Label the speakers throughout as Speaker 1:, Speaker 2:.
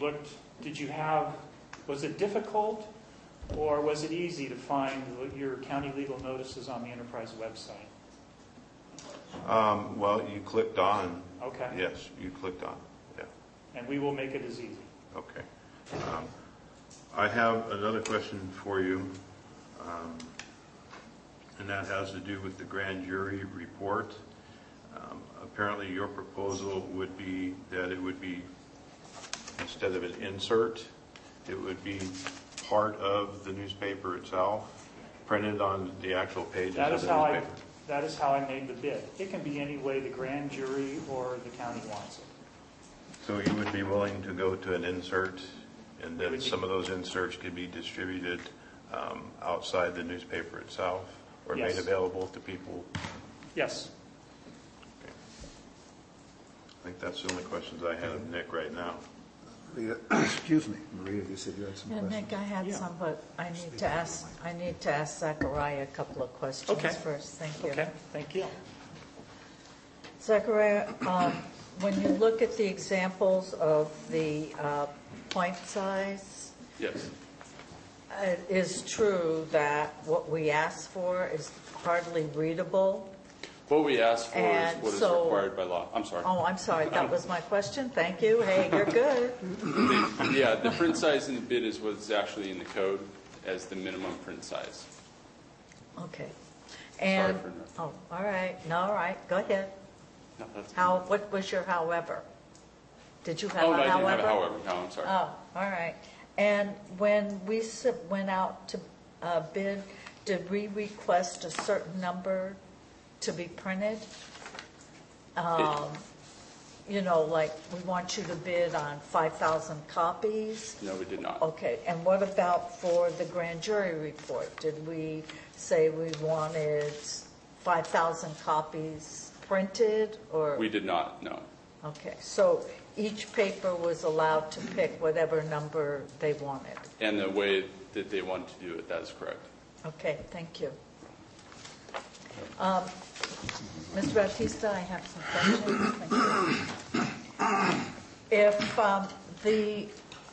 Speaker 1: looked, did you have, was it difficult or was it easy to find your county legal notices on the enterprise website?
Speaker 2: Um, well, you clicked on,
Speaker 1: Okay,
Speaker 2: yes, you clicked on, yeah,
Speaker 1: and we will make it as easy.
Speaker 2: okay. Um, I have another question for you, um, and that has to do with the grand jury report. Um, Apparently, your proposal would be that it would be, instead of an insert, it would be part of the newspaper itself, printed on the actual pages
Speaker 1: That
Speaker 2: of
Speaker 1: is
Speaker 2: the
Speaker 1: how I,
Speaker 2: newspaper.
Speaker 1: that is how I made the bid. It can be any way the grand jury or the county wants it.
Speaker 2: So you would be willing to go to an insert, and then
Speaker 1: Would you-
Speaker 2: some of those inserts could be distributed um, outside the newspaper itself, or made
Speaker 1: Yes.
Speaker 2: available to people?
Speaker 1: Yes,
Speaker 2: I think that's the only questions I have, Nick, right now.
Speaker 3: Maria, excuse me, Maria, you said you had some
Speaker 4: Yeah,
Speaker 3: questions.
Speaker 4: Nick, I had some, but I need to ask, I need to ask Zachariah a couple of
Speaker 1: Okay.
Speaker 4: questions first. Thank you.
Speaker 1: okay, thank you.
Speaker 4: Zachariah, um, when you look at the examples of the uh, point size,
Speaker 5: Yes.
Speaker 4: it is true that what we asked for is hardly readable.
Speaker 5: What we asked for is
Speaker 4: And
Speaker 5: what is
Speaker 4: so-
Speaker 5: required by law. I'm sorry.
Speaker 4: Oh, I'm sorry, that was my question. Thank you. Hey, you're good.
Speaker 5: The- Yeah, the print size in the bid is what's actually in the code as the minimum print size.
Speaker 4: Okay. And,
Speaker 5: for interrupting.
Speaker 4: oh, all right, no, all right, go ahead.
Speaker 5: No, that's-
Speaker 4: How, what was your however? Did you have
Speaker 5: Oh,
Speaker 4: a
Speaker 5: no,
Speaker 4: however?
Speaker 5: I didn't have a however. No, I'm sorry.
Speaker 4: Oh, all right. And when we sub- went out to uh, bid, did we request a certain number to be printed? Um, You know, like, we want you to bid on 5,000 copies?
Speaker 5: No, we did not.
Speaker 4: Okay, and what about for the grand jury report? Did we say we wanted 5,000 copies printed, or?
Speaker 5: We did not, no.
Speaker 4: Okay, so each paper was allowed to pick whatever number they wanted.
Speaker 5: And the way that they wanted to do it, that is correct.
Speaker 4: Okay, thank you. Um, Mr. Bautista, I have some questions. Thank you. If um, the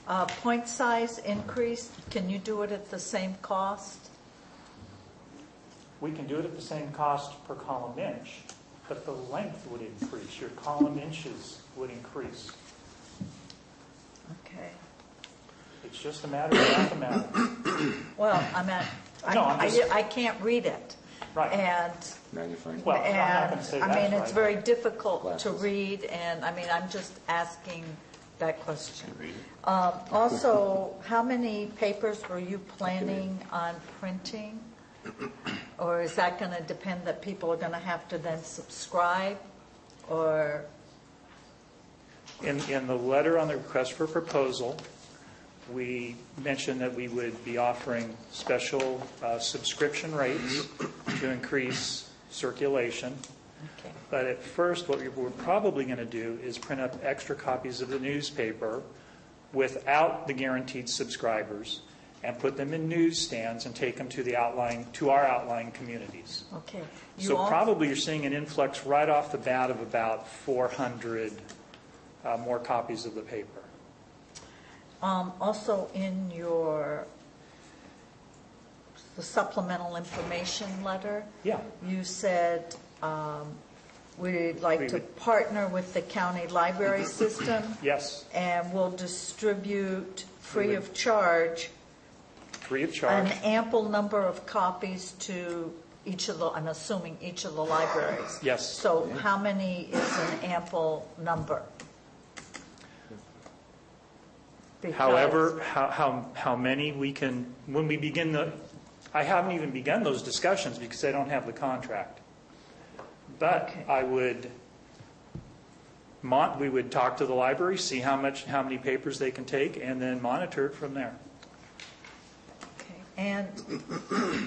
Speaker 4: uh, point size increased, can you do it at the same cost?
Speaker 1: We can do it at the same cost per column inch, but the length would increase, your column inches would increase.
Speaker 4: Okay.
Speaker 1: It's just a matter of mathematics.
Speaker 4: Well, I'm at,
Speaker 1: No, I'm
Speaker 4: I-
Speaker 1: just-
Speaker 4: I I can't read it.
Speaker 1: Right.
Speaker 4: And
Speaker 6: Magnifying.
Speaker 1: Well, I'm not
Speaker 4: And,
Speaker 1: gonna say
Speaker 4: I mean,
Speaker 1: that's
Speaker 4: it's
Speaker 1: right.
Speaker 4: very difficult to
Speaker 6: Glasses.
Speaker 4: read, and, I mean, I'm just asking that question. Um, Also, how many papers were you planning on printing? Or is that going to depend that people are going to have to then subscribe, or,
Speaker 1: In, in the letter on the request for proposal, we mentioned that we would be offering special uh, subscription rates to increase circulation.
Speaker 4: okay,
Speaker 1: But at first, what we we're probably going to do is print up extra copies of the newspaper without the guaranteed subscribers and put them in newsstands and take them to the outlying, to our outlying communities.
Speaker 4: okay. You
Speaker 1: So
Speaker 4: al-
Speaker 1: probably you're seeing an influx right off the bat of about 400 uh, more copies of the paper.
Speaker 4: um, Also, in your the supplemental information letter,
Speaker 1: Yeah,
Speaker 4: You said um, we'd like
Speaker 1: We
Speaker 4: to
Speaker 1: would-
Speaker 4: partner with the county library
Speaker 1: Mm-hmm.
Speaker 4: system,
Speaker 1: yes,
Speaker 4: and we'll distribute free of charge
Speaker 1: free of
Speaker 4: an
Speaker 1: charge.
Speaker 4: ample number of copies to each of the, I'm assuming each of the libraries.
Speaker 1: Yes.
Speaker 4: So how many is an ample number? Because-
Speaker 1: However, how, how, how many we can, when we begin the, I haven't even begun those discussions because I don't have the contract. But
Speaker 4: Okay.
Speaker 1: I would, mon, we would talk to the library, see how much, how many papers they can take, and then monitor it from there.
Speaker 4: Okay. And,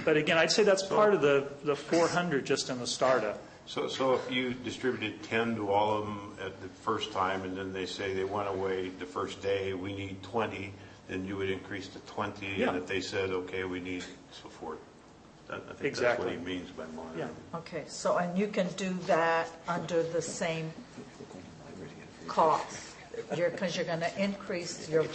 Speaker 1: But again, I'd say that's part of the, the 400 just in the startup.
Speaker 2: So, so if you distributed 10 to all of them at the first time, and then they say they went away the first day, we need 20, then you would increase to 20,
Speaker 1: Yeah.
Speaker 2: and if they said, okay, we need so forth. That- I think that's what
Speaker 1: Exactly.
Speaker 2: he means by monitoring.
Speaker 1: Yeah.
Speaker 4: okay, so, and you can do that under the same cost, because you're going to increase your